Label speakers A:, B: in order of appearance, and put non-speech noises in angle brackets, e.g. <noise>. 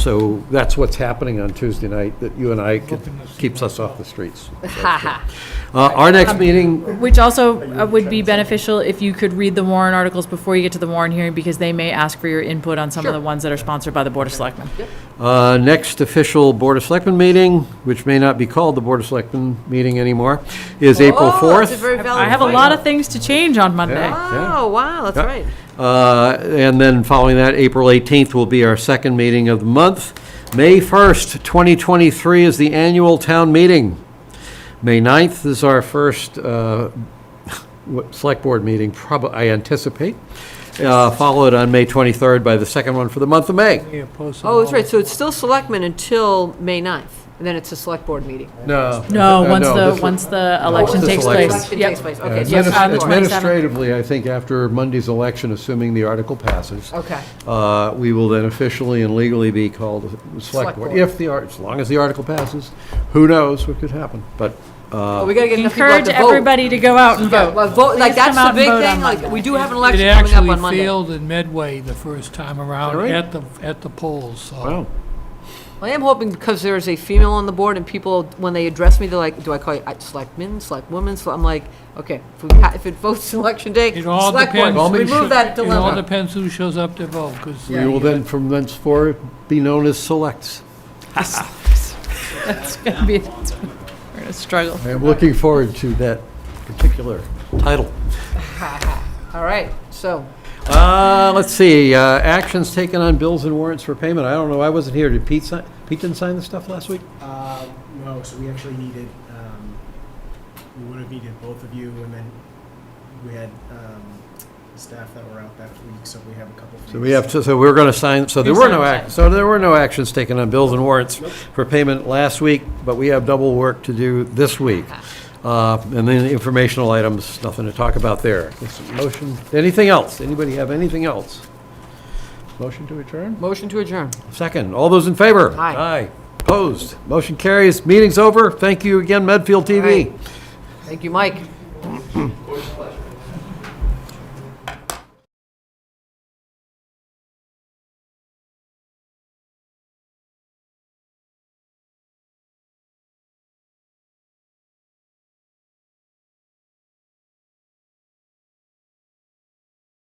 A: So that's what's happening on Tuesday night, that you and I, could- keeps us off the streets. Uh, Our next meeting,
B: Which also uh, would be beneficial if you could read the warrant articles before you get to the warrant hearing, because they may ask for your input on some of the ones that are sponsored by the Board of Selectmen.
A: uh, next official Board of Selectmen meeting, which may not be called the Board of Selectmen meeting anymore, is April
C: Oh, that's a
A: 4th.
C: very
B: I
C: valid
B: have a
C: point.
B: lot of things to change on Monday.
A: Yeah.
C: Oh, wow, that's
A: Yeah.
C: right.
A: Uh, And then following that, April 18th will be our second meeting of the month. May 1st, 2023 is the annual town meeting. May 9th is our first uh, <laughs> what- select board meeting, probably, I anticipate, uh, followed on May 23rd by the second one for the month of May.
C: Oh, that's right, so it's still selectmen until May 9th, and then it's a select board meeting.
A: Uh, No.
B: No, once the,
A: this- Oh,
B: once the election
A: this
B: takes
A: election.
B: place.
C: Election
B: Yep.
C: takes place,
A: uh,
C: okay. so
B: yes,
A: administ-
B: on the
C: that's fine.
B: 20th. 27th.
A: Administratively, I think after Monday's election, assuming the article passes.
C: Okay,
A: Uh, We will then officially and legally be called the Select
C: Select
A: Board,
C: Board.
A: if the, art- as long as the article passes. Who knows what could happen, but,
C: well,
A: uh,
C: we gotta get enough people out
B: Encourage
C: to vote.
B: everybody to go out and
C: Yeah,
B: vote. <laughs>
C: well, vote, like,
B: Please
C: that's
B: come out and
C: the big
B: vote on
C: thing, like,
B: Monday.
C: we do have an
D: It
C: election coming up
D: actually
C: on Monday.
D: failed in Midway the first time around
A: Really?
D: at the, at the polls, so.
A: wow.
C: I am hoping because there is a female on the board and people, when they address me, they're like, do I call you uh, selectmen, selectwoman? So I'm like, okay, if we ha- if it votes <laughs> election day,
D: It all
C: select board,
D: depends.
A: Well, maybe-
C: remove that
D: It all
C: dilemma.
D: depends who shows up to vote, because.
A: We will then, from thenceforth, be known as Selects.
B: It's gonna be, it's- we're gonna struggle.
A: I am looking forward to that particular title.
C: All right, so,
A: Uh, Let's see, uh, actions taken on bills and warrants for payment. I don't know, I wasn't here. Did Pete sign, Pete didn't sign the stuff last week?
E: Uh, No, so we actually needed, um, we would have needed both of you, and then we had um, staff that were out that week, so we have a couple.
A: So we have, to- so we're going to sign, so there were no, ac- so there were no actions taken on bills and warrants for payment last week, but we have double work to do this week. Uh, And then the informational items, nothing to talk about there. This motion, anything else? Anybody have anything else? Motion to adjourn?
C: motion to adjourn.
A: Second, all those in favor?
C: Aye.
A: Aye. Opposed? Motion carries. Meeting's over. Thank you again, Medfield TV.
C: Thank you, Mike.